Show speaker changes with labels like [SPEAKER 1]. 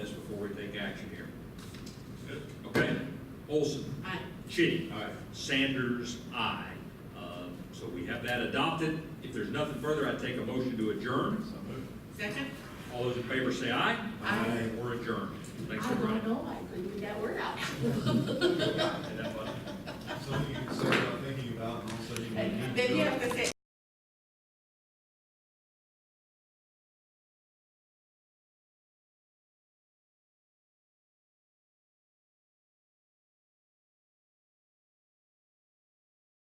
[SPEAKER 1] board take action here. Okay? Olson?
[SPEAKER 2] Aye.
[SPEAKER 1] Chitty?
[SPEAKER 3] Aye.
[SPEAKER 1] Sanders, aye. Uh, So we have that adopted. If there's nothing further, I'd take a motion to adjourn.
[SPEAKER 2] Second?
[SPEAKER 1] All those in favor say aye.
[SPEAKER 2] Aye.
[SPEAKER 1] We're adjourned. Thanks,
[SPEAKER 2] I don't
[SPEAKER 1] everybody.
[SPEAKER 2] know, I couldn't get that word out.